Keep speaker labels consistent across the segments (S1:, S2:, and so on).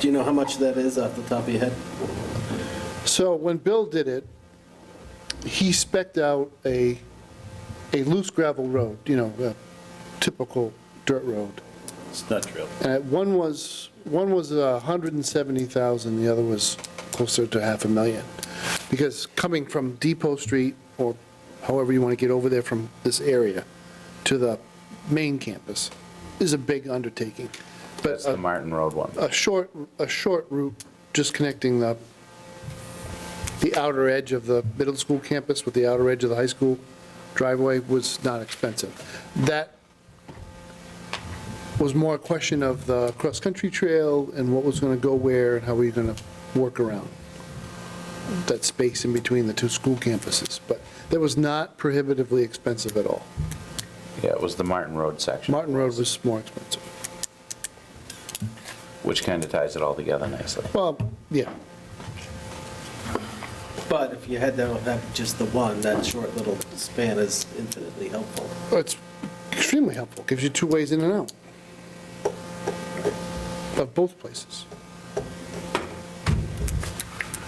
S1: Do you know how much that is off the top of your head?
S2: So when Bill did it, he spec'd out a, a loose gravel road, you know, a typical dirt road.
S1: It's not real.
S2: Uh, One was, one was a 170,000, the other was closer to half a million. Because coming from Depot Street, or however you want to get over there from this area, to the main campus, is a big undertaking. But uh,
S3: That's the
S2: a,
S3: Martin Road one.
S2: a short, a short route, just connecting the, the outer edge of the middle school campus with the outer edge of the high school driveway was not expensive. That was more a question of the cross-country trail and what was going to go where and how were you going to work around that space in between the two school campuses. But that was not prohibitively expensive at all.
S3: Yeah, it was the Martin Road section,
S2: Martin Road was more expensive.
S3: which kind of ties it all together nicely.
S2: Well, yeah,
S1: But if you had that, that just the one, that short little span is infinitely helpful.
S2: It's extremely helpful, gives you two ways in and out of both places.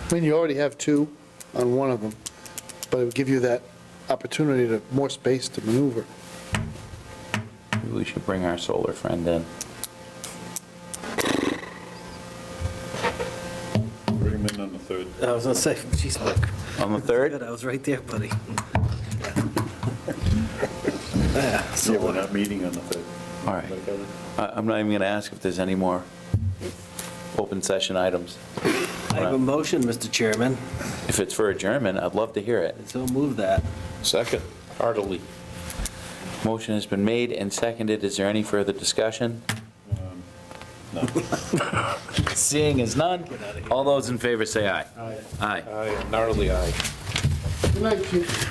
S2: I mean, you already have two on one of them, but it would give you that opportunity to, more space to maneuver.
S3: Maybe we should bring our solar friend in.
S4: Bring him in on the third.
S1: I was gonna say, geez, Mike.
S3: On the
S1: Good,
S3: third?
S1: I was right there, buddy.
S4: Yeah, we're not meeting on the third.
S3: All right. I- I'm not even going to ask if there's any more open session items.
S1: I have a motion, Mr. Chairman,
S3: If it's for adjournment, I'd love to hear it.
S1: so move that.
S3: Second, heartily. Motion has been made and seconded. Is there any further discussion?
S4: um, No.
S3: Seeing as none, all those in favor say aye. Aye.
S5: Aye, gnarly aye.
S2: Good night, Chief.